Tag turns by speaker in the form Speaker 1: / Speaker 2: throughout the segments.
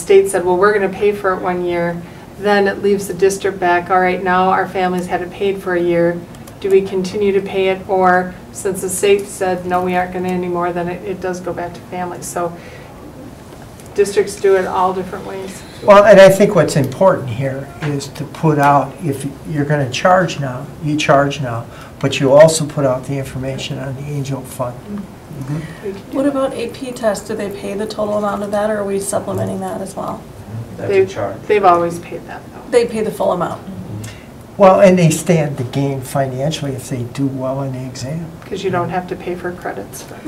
Speaker 1: state said, well, we're going to pay for it one year, then it leaves the district back, all right, now our families had it paid for a year. Do we continue to pay it? Or since the state said, no, we aren't going to anymore, then it, it does go back to families. So districts do it all different ways.
Speaker 2: Well, and I think what's important here is to put out, if you're going to charge now, you charge now, but you also put out the information on the Angel Fund.
Speaker 1: We can do
Speaker 3: What
Speaker 1: that.
Speaker 3: about AP tests? Do they pay the total amount of that, or are we supplementing that as well?
Speaker 4: That's a
Speaker 1: They've-
Speaker 4: charge.
Speaker 1: They've always paid that though.
Speaker 3: They pay the full amount.
Speaker 2: Well, and they stand to gain financially if they do well in the exam.
Speaker 1: Because you don't have to pay for credits for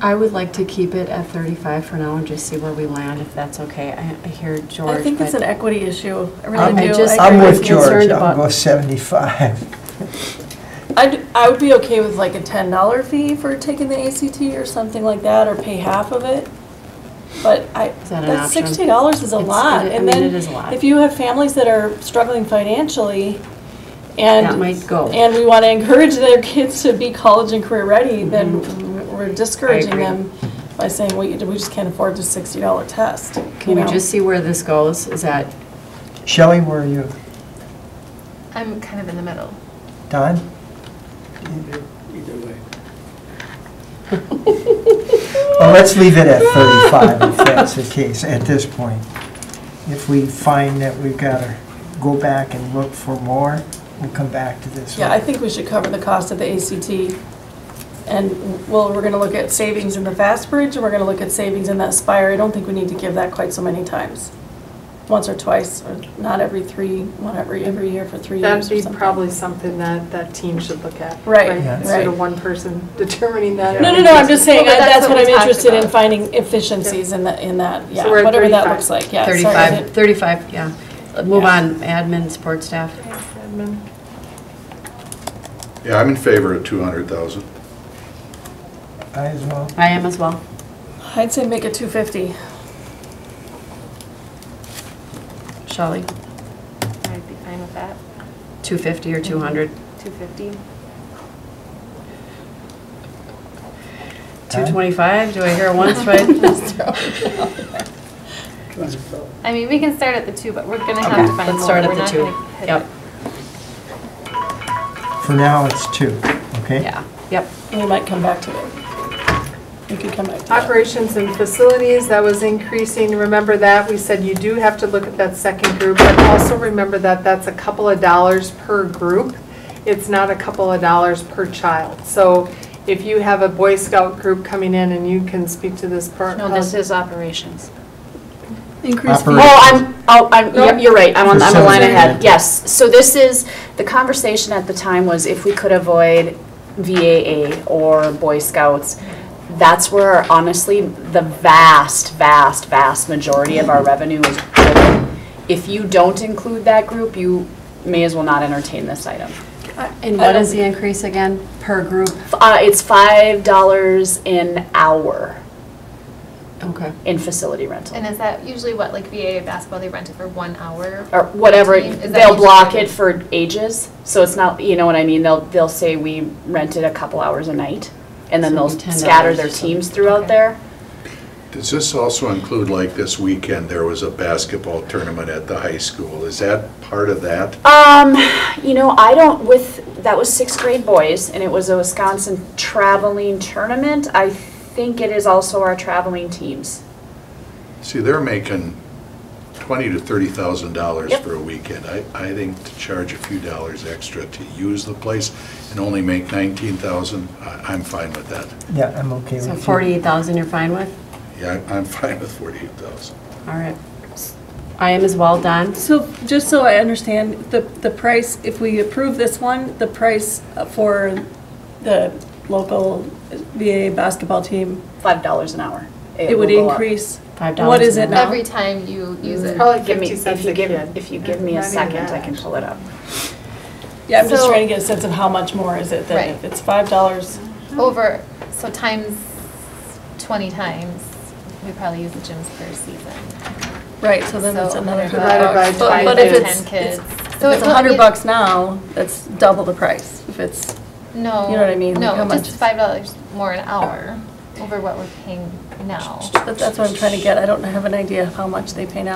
Speaker 5: I would like to keep it at 35 for now and just see where we land, if that's okay. I I hear George.
Speaker 3: I think it's
Speaker 5: but-
Speaker 3: an equity issue. I
Speaker 2: I'm-
Speaker 3: really
Speaker 5: I
Speaker 3: do.
Speaker 5: just-
Speaker 3: I
Speaker 2: I'm
Speaker 3: agree
Speaker 2: with
Speaker 5: I'm
Speaker 3: you.
Speaker 2: George,
Speaker 5: concerned
Speaker 2: I'll
Speaker 5: about-
Speaker 2: go 75.
Speaker 3: I'd, I would be okay with like a ten dollar fee for taking the ACT or something like that, or pay half of it. But I,
Speaker 5: Is that an
Speaker 3: that
Speaker 5: option?
Speaker 3: sixty dollars is a
Speaker 5: It's-
Speaker 3: lot,
Speaker 5: it- I
Speaker 3: and
Speaker 5: mean,
Speaker 3: then
Speaker 5: it is a lot.
Speaker 3: if you have families that are struggling financially, and.
Speaker 5: That might go.
Speaker 3: And we wanna encourage their kids to be college and career ready, then we're discouraging
Speaker 5: Mm-hmm. agree.
Speaker 3: them by saying, we, we just can't afford the sixty dollar test.
Speaker 5: Can
Speaker 3: you
Speaker 5: we
Speaker 3: know?
Speaker 5: just see where this goes? Is that,
Speaker 2: Shelley, where are you?
Speaker 6: I'm kind of in the middle.
Speaker 2: Don?
Speaker 4: Either way.
Speaker 2: Well, let's leave it at 35 if that's the case at this point. If we find that we've got to go back and look for more, we'll come back to this.
Speaker 3: Yeah,
Speaker 2: one.
Speaker 3: I think we should cover the cost of the ACT. And, well, we're gonna look at savings in the Fast Bridge, and we're gonna look at savings in that Spire. I don't think we need to give that quite so many times. Once or twice, or not every three, one every, every year for three years
Speaker 1: That'd
Speaker 3: or
Speaker 1: be
Speaker 3: something.
Speaker 1: probably something that that team should look at.
Speaker 3: Right,
Speaker 2: Yeah.
Speaker 1: Instead of
Speaker 3: right.
Speaker 1: one person determining that.
Speaker 3: No, no, no, I'm just saying,
Speaker 6: Well,
Speaker 3: I-
Speaker 6: but that's
Speaker 3: that's
Speaker 6: what
Speaker 3: what I'm
Speaker 6: we talked
Speaker 3: interested in,
Speaker 6: about.
Speaker 3: finding efficiencies in the, in that, yeah,
Speaker 1: we're at
Speaker 3: whatever that
Speaker 1: 35.
Speaker 3: looks like, yeah. sorry, is it-
Speaker 5: 35, 35, yeah. Move
Speaker 3: Yeah.
Speaker 5: on, admin, support staff.
Speaker 1: Admin.
Speaker 7: Yeah, I'm in favor of 200,000.
Speaker 2: I as well.
Speaker 5: I am as well.
Speaker 3: I'd say make it two fifty.
Speaker 5: Shelley,
Speaker 6: I'd be fine with that.
Speaker 5: 250 or 200?
Speaker 6: 250.
Speaker 5: 225? Do I hear once, right?
Speaker 6: I mean, we can start at the two, but we're gonna have to find more.
Speaker 5: Let's start
Speaker 6: We're
Speaker 5: at the
Speaker 6: not
Speaker 5: two.
Speaker 6: gonna hit
Speaker 5: Yep,
Speaker 2: For now, it's two, okay?
Speaker 5: yeah, yep.
Speaker 3: We might come back to it. We could come back to that.
Speaker 1: Operations and facilities, that was increasing. Remember that, we said you do have to look at that second group, but also remember that that's a couple of dollars per group. It's not a couple of dollars per child. So if you have a Boy Scout group coming in, and you can speak to this part.
Speaker 8: No, this is operations.
Speaker 2: Increase
Speaker 8: Oh, I'm, oh, I'm, yep, you're right, I'm on, I'm a line
Speaker 2: Facility.
Speaker 8: ahead, yes. So this is, the conversation at the time was if we could avoid VAA or Boy Scouts, that's where honestly, the vast, vast, vast majority of our revenue is driven. If you don't include that group, you may as well not entertain this item.
Speaker 5: And what is the increase again, per group?
Speaker 8: Uh, it's five dollars an hour
Speaker 5: Okay.
Speaker 8: in facility
Speaker 6: it.
Speaker 8: rental.
Speaker 6: And is that usually what, like VA basketball, they rent it for one hour?
Speaker 8: or whatever,
Speaker 6: Is that
Speaker 8: they'll
Speaker 6: each
Speaker 8: block
Speaker 6: grade?
Speaker 8: it for ages, so it's not, you know what I mean, they'll, they'll say we rented a couple hours a night, and then
Speaker 5: So
Speaker 8: they'll
Speaker 5: it'd be $10
Speaker 8: scatter their
Speaker 5: or something.
Speaker 8: teams throughout
Speaker 5: Okay.
Speaker 8: there.
Speaker 7: Does this also include, like, this weekend, there was a basketball tournament at the high school? Is that part of that?
Speaker 8: Um, you know, I don't, with, that was sixth grade boys, and it was a Wisconsin traveling tournament, I think it is also our traveling teams.
Speaker 7: See, they're making 20 to 30,000 dollars
Speaker 8: Yep.
Speaker 7: for a weekend. I, I think to charge a few dollars extra to use the place and only make 19,000, I- I'm fine with that.
Speaker 2: Yeah, I'm okay with
Speaker 5: So
Speaker 2: you.
Speaker 5: 48,000 you're fine with?
Speaker 7: Yeah, I- I'm fine with 48,000.
Speaker 5: All right. I am as well, Don.
Speaker 3: So, just so I understand, the, the price, if we approve this one, the price for the local VA basketball team,
Speaker 8: Five dollars an hour.
Speaker 3: it would
Speaker 8: will go up.
Speaker 3: increase.
Speaker 5: Five dollars
Speaker 3: What is
Speaker 5: an
Speaker 3: it now?
Speaker 6: Every time you use it.
Speaker 1: Probably
Speaker 8: Give me,
Speaker 1: 50
Speaker 8: if
Speaker 1: cents
Speaker 8: you
Speaker 1: a
Speaker 8: give,
Speaker 1: kid.
Speaker 8: if you give me a
Speaker 1: Not even
Speaker 8: second,
Speaker 1: that,
Speaker 8: I can pull it up.
Speaker 3: Yeah, I'm just
Speaker 6: So-
Speaker 3: trying to get a sense of how much more is it
Speaker 6: Right.
Speaker 3: than if it's five dollars.
Speaker 6: Over, so times 20 times, we probably use the gyms per season.
Speaker 3: Right, so then it's
Speaker 6: So
Speaker 3: another
Speaker 1: divided
Speaker 3: hundred
Speaker 1: by
Speaker 3: bucks. But-
Speaker 1: five
Speaker 3: But if
Speaker 1: is
Speaker 3: it's,
Speaker 6: 10
Speaker 3: it's,
Speaker 6: kids.
Speaker 3: if
Speaker 6: So
Speaker 3: it's
Speaker 6: it-
Speaker 3: a hundred
Speaker 6: it-
Speaker 3: bucks now, that's double the price, if it's,
Speaker 6: No.
Speaker 3: You know what I mean? How
Speaker 6: No,
Speaker 3: much
Speaker 6: just
Speaker 3: is-
Speaker 6: $5 more an hour over what we're paying now.
Speaker 3: that- that's what I'm trying to get, I don't have an idea of how much they pay now.